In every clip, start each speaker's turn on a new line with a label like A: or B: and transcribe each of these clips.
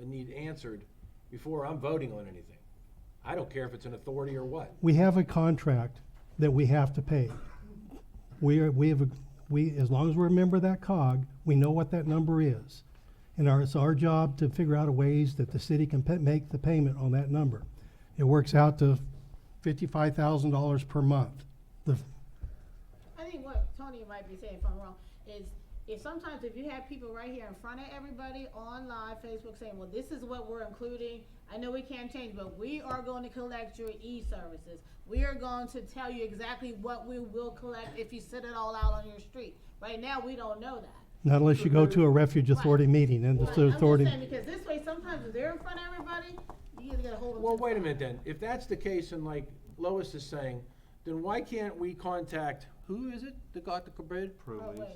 A: and need answered before I'm voting on anything. I don't care if it's an authority or what.
B: We have a contract that we have to pay. We are, we have, a- we, as long as we're a member of that cog, we know what that number is. And our, it's our job to figure out ways that the city can pa- make the payment on that number. It works out to fifty-five thousand dollars per month. The,
C: I think what Tony might be saying, if I'm wrong, is if sometimes if you have people right here in front of everybody on live Facebook saying, well, this is what we're including, I know we can't change, but we are going to collect your e-services. We are going to tell you exactly what we will collect if you set it all out on your street. Right now, we don't know that.
B: not unless you go to a refuge authority meeting and
C: But
B: the authority.
C: I'm just saying, because this way, sometimes if they're in front of everybody, you either gotta hold them. to
A: Well,
C: the
A: wait a
C: fire.
A: minute then, if that's the case and like Lois is saying, then why can't we contact, who is it that got the bid?
C: Oh, wait.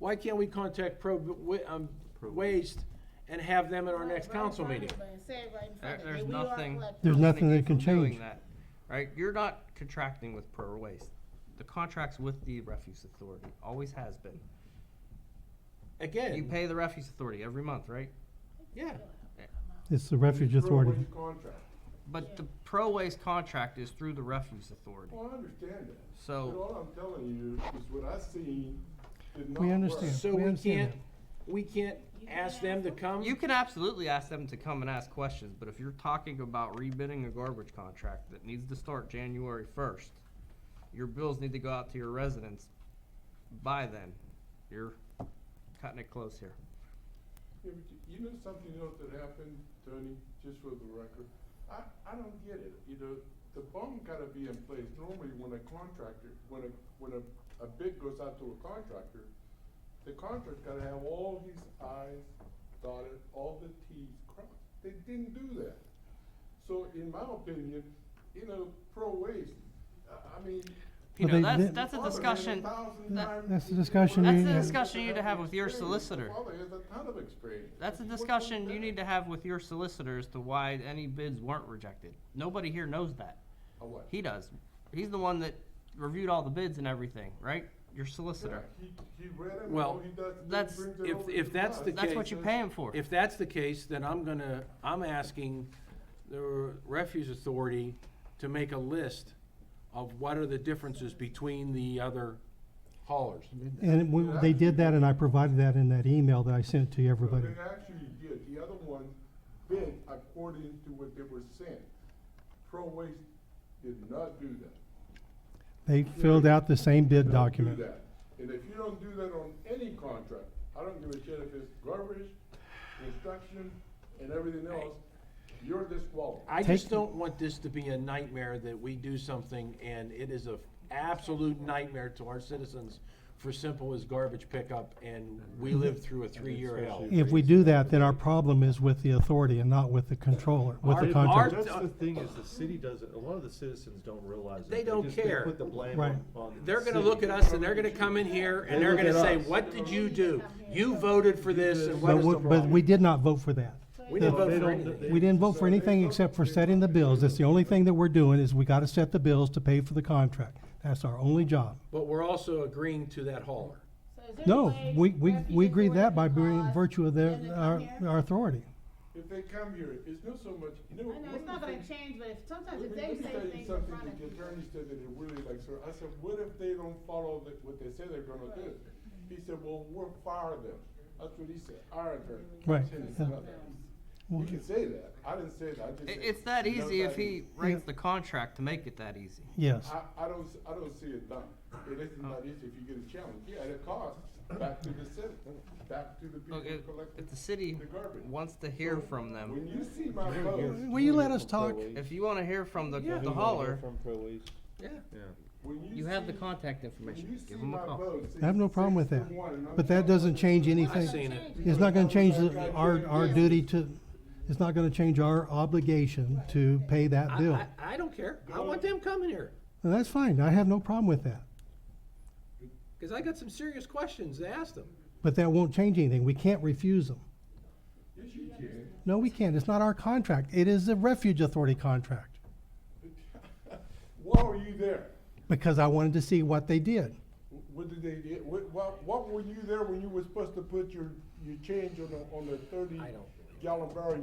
A: Why can't we contact Pro, Wa- um, Waste and have them at our next
C: Right,
A: council
C: right,
A: meeting?
C: right, Say it right in
D: There-
C: front of them.
D: there's
C: We are
D: nothing.
C: collecting.
B: There's nothing
D: keeping
B: they can
D: from doing
B: change.
D: that, Right, you're not contracting with Pro Waste. The contract's with the refuse authority, always has been. You
A: Again,
D: pay the refuse authority every month, right?
A: yeah,
B: It's the refuge
E: Throw away
B: authority.
E: the contract.
C: Yeah.
D: But the Pro Waste contract is through the refuse authority.
E: Well, I understand that. But
D: So,
E: all I'm telling you is what I seen did not work.
B: We understand.
A: so
B: we
A: we
B: understand
A: can't,
B: that.
A: we can't ask them to come?
D: you can absolutely ask them to come and ask questions, but if you're talking about rebidding a garbage contract that needs to start January first, your bills need to go out to your residents by then. You're cutting it close here.
E: Yeah, but you- You know something else that happened, Tony, just for the record? I, I don't get it, you know, the bond gotta be in place. Normally, when a contractor, when a, when a, a bid goes out to a contractor, the contractor gotta have all his i's dotted, all the t's crossed. They didn't do that. So in my opinion, you know, pro waste, I, I mean.
D: You
B: But
D: know,
B: they-
D: that's,
B: they-
D: that's a
E: Father has
D: discussion.
E: thousand
D: that-
E: times-
B: That's the discussion That's you- the
D: discussion you need to have with your
E: Experience.
D: solicitor.
E: Father has a ton of experience.
D: That's a
E: What's wrong
D: discussion
E: with
D: you
E: that?
D: need to have with your solicitor as to why any bids weren't rejected. Nobody here knows that.
E: A what?
D: He does. He's the one that reviewed all the bids and everything, right? Your solicitor.
E: Yeah, He, he read it,
A: Well,
E: all he does is
D: that's-
E: he brings it
A: if-
E: over
A: if
E: to
A: that's
E: us.
A: the
D: That's
A: Okay,
D: what you pay him for.
A: If that's the case, then I'm gonna, I'm asking the Refuge Authority to make a list of what are the differences between the other haulers.
B: And we, they did that and I provided that in that email that I sent to
E: So
B: everybody.
E: They actually did, the other one bid according to what they were sent. Pro Waste did not do that.
B: They filled out the same bid
E: Don't do
B: document.
E: that. And if you don't do that on any contract, I don't give a shit if it's garbage, construction, and everything else, you're disqualified.
A: I just
B: Take-
A: don't want this to be a nightmare that we do something and it is a absolute nightmare to our citizens for simple as garbage pickup and we live through a three-year hell.
B: If we do that, then our problem is with the authority and not with the controller, with
A: Our-
B: the
A: our-
B: contractor.
F: That's the thing is the city doesn't, a lot of the citizens don't realize that.
A: They don't
F: just-
A: care.
F: They put the blame
B: Right.
F: on, on the
A: They're gonna
F: city.
A: look at us and they're gonna come in here and
F: They
A: they're
F: look
A: gonna
F: at
A: say,
F: us.
A: what did you do? You voted for this and what
B: But
A: is the
B: we,
A: problem?
B: but we did not vote for that.
A: We
B: the-
A: didn't vote
F: They
A: for
F: don't-
A: anything.
F: they-
B: We didn't vote for anything except for setting the bills. That's the only thing that we're doing is we gotta set the bills to pay for the contract. That's our only job.
A: But we're also agreeing to that hauler.
C: So is there a
B: No,
C: way
B: we, we,
C: Refuge
B: we agreed
C: Authority
B: that by
C: can
B: being
C: call us
B: virtue of
C: and then
B: their,
C: come
B: our,
C: here?
B: our authority.
E: If they come here, it's not so much, you know.
C: I know,
E: one
C: it's
E: of
C: not
E: the
C: gonna
E: things-
C: change, but if,
E: Let
C: sometimes
E: me
C: if
E: let
C: they
E: me
C: say
E: tell you
C: things in
E: something
C: front of
E: that the
C: you.
E: attorney said that it really likes her. I said, what if they don't follow the- what they say they're gonna do? He said, well, we'll fire them. That's what he said, our attorney.
B: Right,
E: He said it's
B: yeah.
E: not that easy. He can say that. I didn't say that. I just
D: I-
E: said.
D: It's that
E: it's not
D: easy if he
E: easy.
D: writes the contract to make it that easy.
B: Yes.
E: I, I don't, s- I don't see it done. It isn't
D: Oh.
E: not easy if you get a challenge. Yeah, and it costs back to the city, back to the people
D: Look, if,
E: collecting
D: if the city
E: the garbage.
D: wants to hear
E: So,
D: from
E: When
D: them,
E: you see my post,
B: Will you let us talk?
D: if you wanna hear from the,
F: We
D: the
F: wanna
D: hauler,
F: hear From Pro Waste.
D: yeah,
F: yeah.
E: when you see.
D: you have the contact
E: When
D: information.
E: you see
D: Give them
E: my
D: a call.
E: vote,
B: I have no
E: six-
B: problem with
E: six to
B: that,
E: one, and I'm
B: but that
E: telling
B: doesn't
E: you,
B: change
A: I've
B: anything.
A: seen it.
B: It's not gonna change the, our, our duty to, it's not gonna change our obligation to pay that
A: I,
B: bill.
A: I, I don't care. I want them coming here,
B: And that's fine, I have no problem with that.
A: because I got some serious questions to ask them.
B: But that won't change anything, we can't refuse them.
E: Yes, you can.
B: No, we can't, it's not our contract, it is the refuge authority contract,
E: Why were you there?
B: because I wanted to see what they did.
E: Wh- What did they, do? what, what, what were you there when you were supposed to put your, your change on the, on the thirty
A: I don't
E: gallon barrel